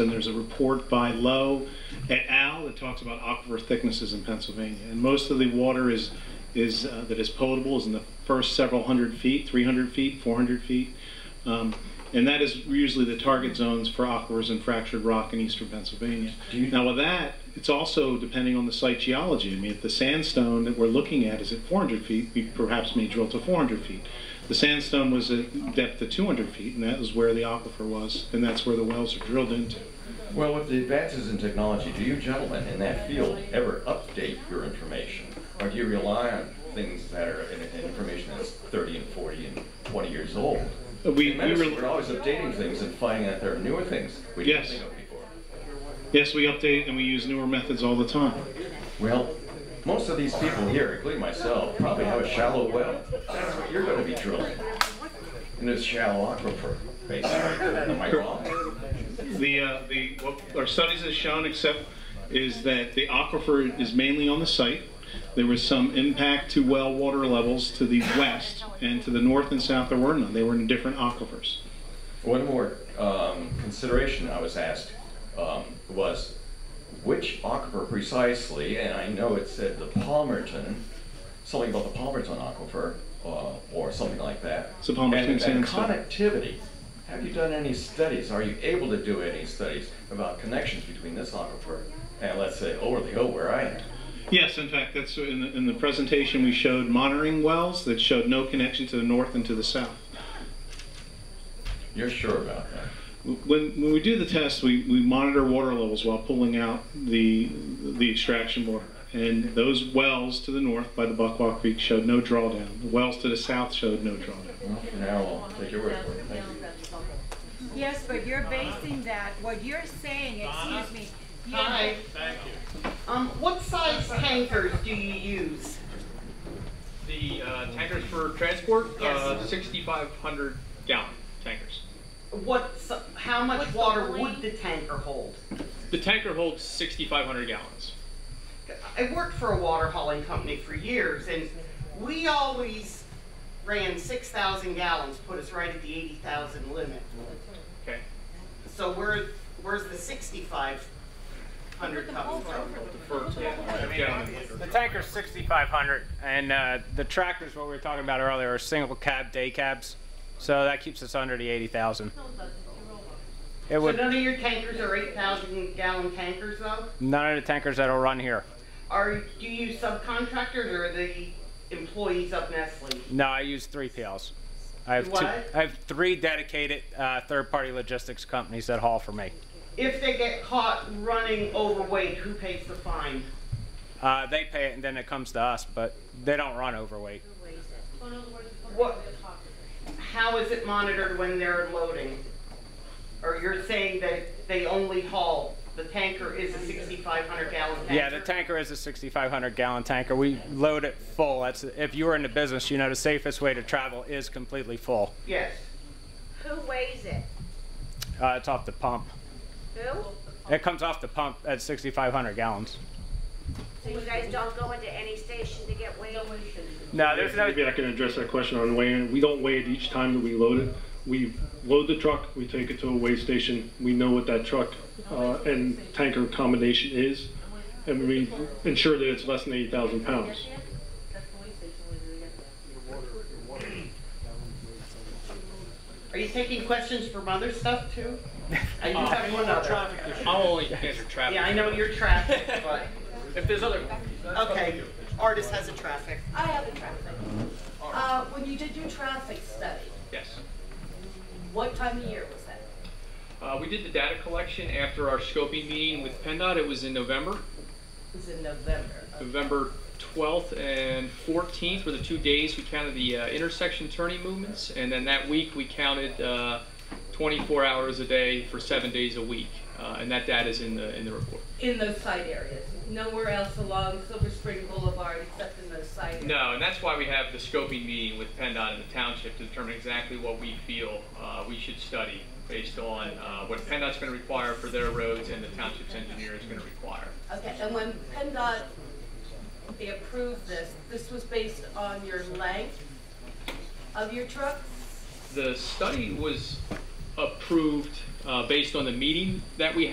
And there's a report by Lowe et al. that talks about aquifer thicknesses in Pennsylvania. And most of the water is, is, uh, that is potable is in the first several hundred feet, 300 feet, 400 feet. Um, And that is usually the target zones for aquifers and fractured rock in eastern Pennsylvania. Now with that, it's also depending on the site geology. I mean, if the sandstone that we're looking at is at 400 feet, we perhaps may drill to 400 feet. The sandstone was at depth of 200 feet, and that was where the aquifer was, and that's where the wells are drilled into. Well, with the advances in technology, do you gentlemen in that field ever update your information? Or do you rely on things that are, in- in information that's 30 and 40 and 20 years old? Uh, We, we In medicine, were, we're always updating things and finding out there are newer things we didn't Yes. think of before. yes, we update and we use newer methods all the time. Well, most of these people here, including myself, probably have a shallow well. That's what you're gonna be drilling. In this shallow aquifer, basically. Am I wrong? The, uh, the, what our studies have shown, except, is that the aquifer is mainly on the site. There was some impact to well water levels to the west, and to the north and south, there were none. They were in different aquifers. One more um, consideration I was asked um, was which aquifer precisely, and I know it said the Palmerton, something about the Palmerton aquifer uh, or something like that. It's the Palmerton and, and sandstone. connectivity. Have you done any studies? Are you able to do any studies about connections between this aquifer and, let's say, over the hill where I am? Yes, in fact, that's in the, in the presentation we showed monitoring wells that showed no connection to the north and to the south. You're sure about that? When, when we do the test, we, we monitor water levels while pulling out the, the extraction water. And those wells to the north by the Buckwalk Creek showed no drawdown. The wells to the south showed no drawdown. Well, for now, I'll take your word for it. Thank you. Yes, but you're basing that, what you're saying, excuse me. you- Hi. Thank you. Um, what size tankers do you use? The uh, tankers for transport, uh, Yes. 6,500 gallon tankers. What, s- how much water would the tanker hold? The tanker holds 6,500 gallons. I worked for a water hauling company for years and we always ran six thousand gallons, put us right at the eighty thousand limit. Okay. So where, where's the sixty-five hundred coming from? For yeah, The tanker's 6,500, and uh, the tractors, what we were talking about earlier, are single cab day cabs, so that keeps us under the 80,000. It So would none of your tankers are eight thousand gallon tankers though? none of the tankers that'll run here. Are, do you use subcontractors or the employees of Nestle? No, I use three PLs. I have two. What? I have three dedicated uh, third-party logistics companies that haul for me. If they get caught running overweight, who pays the fine? Uh, they pay it, and then it comes to us, but they don't run overweight. What, how is it monitored when they're loading? Or you're saying that they only haul, the tanker is a sixty-five hundred gallon tanker? Yeah, the tanker is a 6,500 gallon tanker. We load it full. That's if you were in the business, you know the safest way to travel is completely full. Yes. Who weighs it? Uh, it's off the pump. Who? It comes off the pump at 6,500 gallons. So you guys don't go into any station to get weighed? No, there's no. Maybe I can address that question on weighing. We don't weigh it each time that we load it. We load the truck, we take it to a weigh station, we know what that truck uh, and tanker combination is, and we ensure that it's less than 8,000 pounds. Are you taking questions from other stuff too? I do have one other. I'll only answer traffic. Yeah, I know you're traffic, but, If there's other okay, artist has a traffic. I have a traffic. Uh, when you did your traffic study, Yes. what time of year was that? Uh, we did the data collection after our scoping meeting with PennDOT. It was in November. It was in November. November 12th and 14th were the two days we counted the uh, intersection turning movements, and then that week we counted uh, 24 hours a day for seven days a week, uh, and that data is in the in the report. In those side areas, nowhere else along Silver Spring Boulevard except in those side areas. No, and that's why we have the scoping meeting with PennDOT and the township to determine exactly what we feel uh, we should study based on uh, what PennDOT's going to require for their roads and the township's engineer is going to require. Okay, and when PennDOT, they approved this, this was based on your length of your trucks? The study was approved uh, based on the meeting that we